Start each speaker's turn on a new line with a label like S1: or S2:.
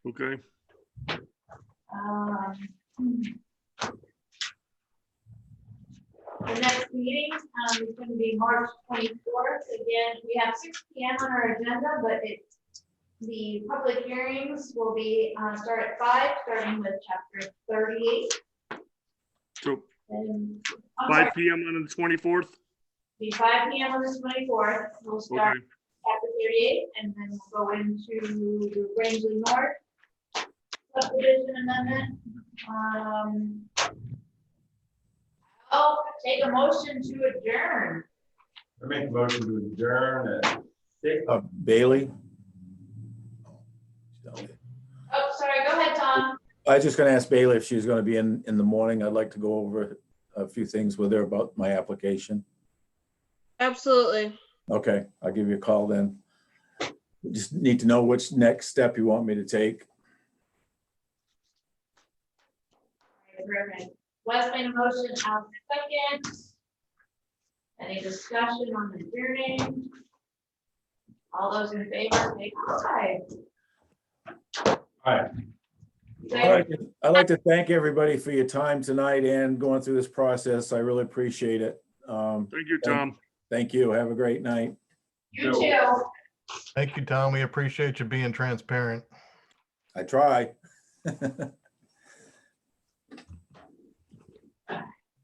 S1: Okay,
S2: Um, The next meeting um, is going to be March twenty-fourth. Again, we have six P M on our agenda, but it, the public hearings will be, uh, start at five, starting with chapter thirty-eight.
S1: so
S2: And, I'm sorry,
S1: five PM on the twenty-fourth?
S2: be five P M on the twenty-fourth. We'll
S1: Okay,
S2: start chapter thirty-eight, and then we'll go into the Rangeley North subdivision amendment. Um, I'll take a motion to adjourn.
S3: I make a motion to adjourn at six.
S4: Uh, Bailey?
S2: Oh, sorry, go ahead, Tom.
S4: I was just gonna ask Bailey if she was gonna be in, in the morning. I'd like to go over a few things with her about my application.
S5: Absolutely.
S4: Okay, I'll give you a call then. Just need to know which next step you want me to take.
S2: Perfect. Wes made a motion, I'll second. Any discussion on adjourning? All those in favor, say aye.
S3: Aye.
S4: I'd
S2: Say
S4: like to- I'd like to thank everybody for your time tonight and going through this process. I really appreciate it. Um,
S1: thank you, Tom.
S4: thank you. Have a great night.
S2: You too.
S6: Thank you, Tom. We appreciate you being transparent.
S4: I try.